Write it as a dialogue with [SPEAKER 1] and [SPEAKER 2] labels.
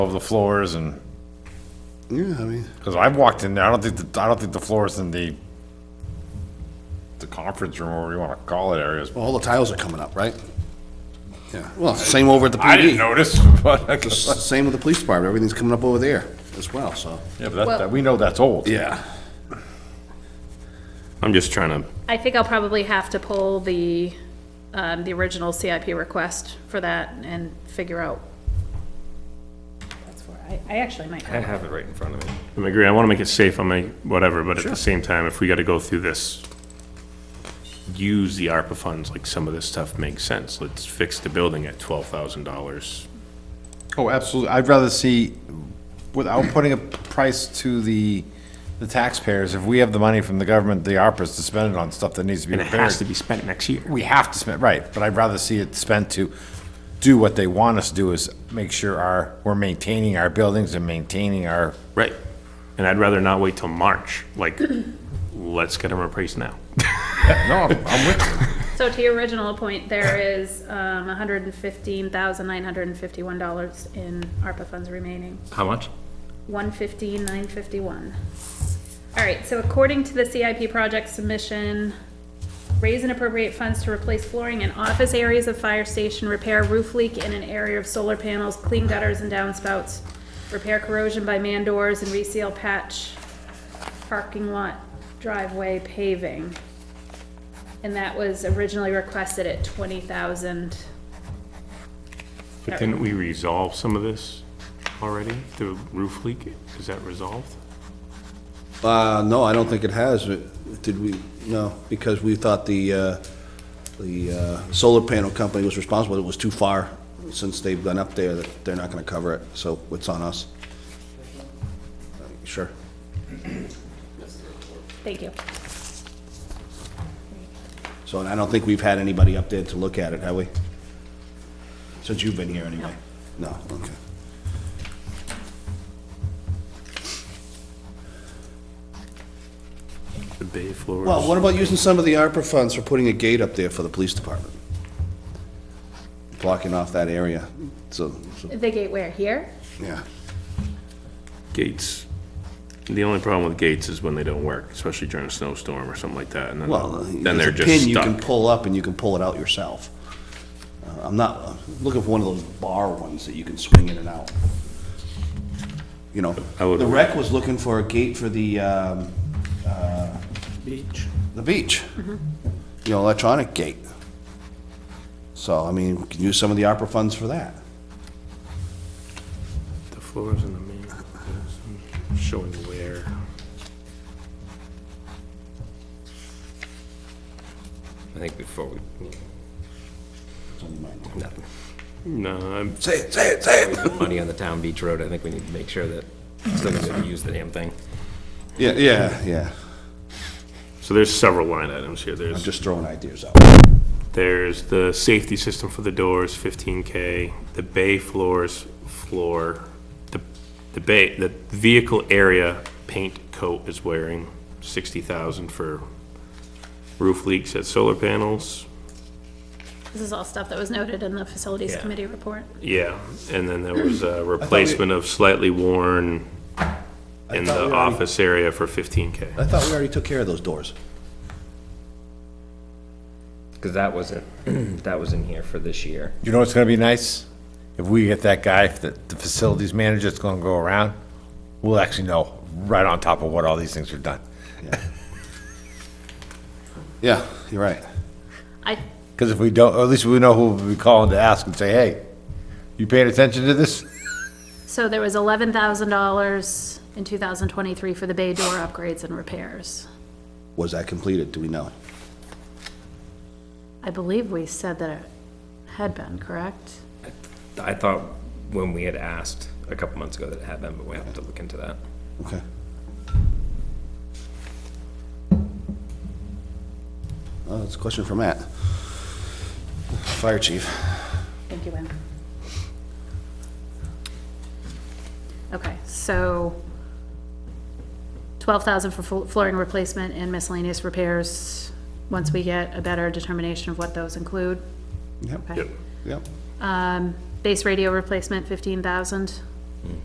[SPEAKER 1] of the floors and,
[SPEAKER 2] Yeah, I mean,
[SPEAKER 1] because I've walked in there, I don't think, the- I don't think the floors in the, the conference room, or whatever you want to call it areas.
[SPEAKER 2] all the tiles are coming up, right? Yeah, well, same over at the
[SPEAKER 1] I didn't
[SPEAKER 2] PD.
[SPEAKER 1] notice, but, I
[SPEAKER 2] S-
[SPEAKER 1] guess-
[SPEAKER 2] Same with the police department, everything's coming up over there as well, so.
[SPEAKER 1] yeah, but that- that, we know that's old.
[SPEAKER 2] Yeah.
[SPEAKER 3] I'm just trying to,
[SPEAKER 4] I think I'll probably have to pull the, um, the original CIP request for that and figure out. That's where, I, I actually might
[SPEAKER 5] I
[SPEAKER 4] have.
[SPEAKER 5] have it right in front of me.
[SPEAKER 3] I agree, I want to make it safe, I make whatever, but at the same time, if we got to go through this, use the ARPA funds, like some of this stuff makes sense. Let's fix the building at twelve thousand dollars.
[SPEAKER 6] Oh, absolutely. I'd rather see, without putting a price to the, the taxpayers, if we have the money from the government, the ARPA's to spend it on stuff that needs to be
[SPEAKER 3] And it has to
[SPEAKER 6] repaired.
[SPEAKER 3] be spent next year.
[SPEAKER 6] We have to spend, right, but I'd rather see it spent to do what they want us to do is make sure our, we're maintaining our buildings and maintaining our,
[SPEAKER 3] Right. And I'd rather not wait till March, like, let's get them replaced now.
[SPEAKER 6] no, I'm with you.
[SPEAKER 4] So to your original point, there is, um, hundred and fifteen thousand nine hundred and fifty-one dollars in ARPA funds remaining.
[SPEAKER 5] How much?
[SPEAKER 4] One fifteen, nine fifty-one. All right, so according to the CIP project submission, raise and appropriate funds to replace flooring in office areas of fire station, repair roof leak in an area of solar panels, clean gutters and downspouts, repair corrosion by man doors and reseal patch, parking lot driveway paving. And that was originally requested at twenty thousand.
[SPEAKER 3] But didn't we resolve some of this already? The roof leak, is that resolved?
[SPEAKER 2] Uh, no, I don't think it has. It- Did we, no, because we thought the, uh, the, uh, solar panel company was responsible. It was too far since they've gone up there that they're not gonna cover it, so it's on us. Sure.
[SPEAKER 4] Thank you.
[SPEAKER 2] So, and I don't think we've had anybody up there to look at it, have we? Since you've been here anyway? No, okay.
[SPEAKER 3] The bay floors?
[SPEAKER 2] Well, what about using some of the ARPA funds for putting a gate up there for the police department? Blocking off that area, so, so,
[SPEAKER 4] The gate where, here?
[SPEAKER 2] yeah.
[SPEAKER 3] Gates. The only problem with gates is when they don't work, especially during a snowstorm or something like that, and
[SPEAKER 2] Well, uh,
[SPEAKER 3] then, then
[SPEAKER 2] there's
[SPEAKER 3] they're
[SPEAKER 2] a
[SPEAKER 3] just
[SPEAKER 2] pin you can
[SPEAKER 3] stuck.
[SPEAKER 2] pull up and you can pull it out yourself. Uh, I'm not, I'm looking for one of those bar ones that you can swing in and out. You know,
[SPEAKER 3] I would-
[SPEAKER 2] the rec was looking for a gate for the, um, uh. Beach. The beach. You know, electronic gate. So, I mean, we can use some of the ARPA funds for that.
[SPEAKER 3] The floors in the main, showing where.
[SPEAKER 5] I think before we,
[SPEAKER 2] It's only mine.
[SPEAKER 5] nothing.
[SPEAKER 3] No, I'm,
[SPEAKER 2] Say it, say it, say it.
[SPEAKER 5] We put money on the town beach road, I think we need to make sure that it's still gonna be able to use the damn thing.
[SPEAKER 2] Yeah, yeah, yeah.
[SPEAKER 3] so there's several line items here.
[SPEAKER 2] I'm
[SPEAKER 3] There's,
[SPEAKER 2] just throwing ideas out.
[SPEAKER 3] there's the safety system for the doors, fifteen K, the bay floors, floor, the, the bay, the vehicle area paint coat is wearing sixty thousand for roof leaks at solar panels.
[SPEAKER 4] This is all stuff that was noted in the facilities
[SPEAKER 3] Yeah.
[SPEAKER 4] committee report.
[SPEAKER 3] Yeah, and then there was a replacement of slightly worn in
[SPEAKER 2] thought we
[SPEAKER 3] the
[SPEAKER 2] already-
[SPEAKER 3] office area for fifteen K.
[SPEAKER 2] I thought we already took care of those doors.
[SPEAKER 5] Cause that wasn't, that was in here for this year.
[SPEAKER 6] You know what's gonna be nice? If we get that guy, that the facilities manager that's gonna go around, we'll actually know right on top of what all these things are done.
[SPEAKER 2] Yeah, you're right.
[SPEAKER 4] I,
[SPEAKER 6] Because if we don't, or at least we know who we'll be calling to ask and say, hey, you paying attention to this?
[SPEAKER 4] so there was eleven thousand dollars in two thousand twenty-three for the bay door upgrades and repairs.
[SPEAKER 2] Was that completed? Do we know?
[SPEAKER 4] I believe we said that it had been, correct?
[SPEAKER 5] I thought when we had asked a couple months ago that it had been, but we have to look into that.
[SPEAKER 2] Okay. Well, that's a question for Matt. Fire chief.
[SPEAKER 4] Thank you, Ann. Okay, so twelve thousand for flo- flooring replacement and miscellaneous repairs, once we get a better determination of what those include.
[SPEAKER 2] Yep,
[SPEAKER 4] Okay.
[SPEAKER 3] Yep.
[SPEAKER 2] yep.
[SPEAKER 4] Um, base radio replacement, fifteen thousand.